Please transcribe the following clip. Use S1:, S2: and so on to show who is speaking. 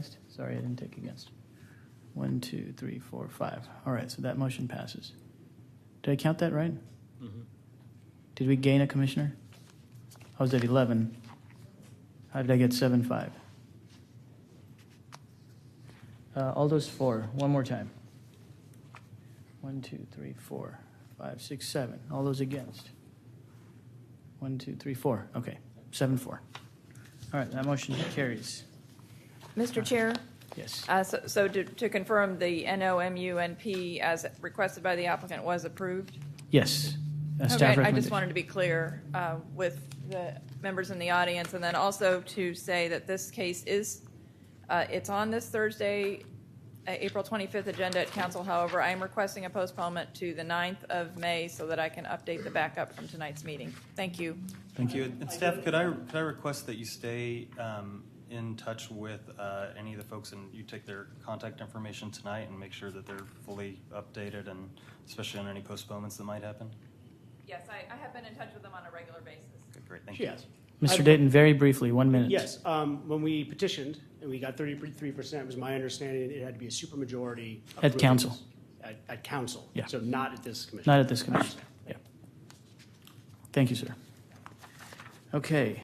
S1: Sorry, I didn't take against. One, two, three, four, five. All right, so that motion passes. Did I count that right? Did we gain a commissioner? I was at 11. How did I get 7, 5? Uh, all those four, one more time. One, two, three, four, five, six, seven. All those against? One, two, three, four. Okay, 7, 4. All right, that motion carries.
S2: Mr. Chair,
S1: Yes.
S2: uh, so- so to to confirm, the NOMUNP as requested by the applicant was approved?
S1: Yes. A
S2: Okay,
S1: staff
S2: I just
S1: recommendation.
S2: wanted to be clear uh, with the members in the audience, and then also to say that this case is, uh, it's on this Thursday, uh, April 25th agenda at council. However, I am requesting a postponement to the 9th of May so that I can update the backup from tonight's meeting. Thank you.
S3: Thank you. And staff, could I, could I request that you stay um, in touch with uh, any of the folks and you take their contact information tonight and make sure that they're fully updated and especially on any postponements that might happen?
S2: Yes, I have been in touch with them on a regular basis.
S3: Okay, great, thank you.
S4: Yes.
S1: Mr. Dayton, very briefly, one minute.
S4: Yes, um, when we petitioned and we got thirty-three percent, was my understanding it had to be a supermajority.
S1: At
S4: approval.
S1: council.
S4: At, at council.
S1: Yeah.
S4: So not at this commission.
S1: Not at this commission. Yeah. Thank you, sir. Okay.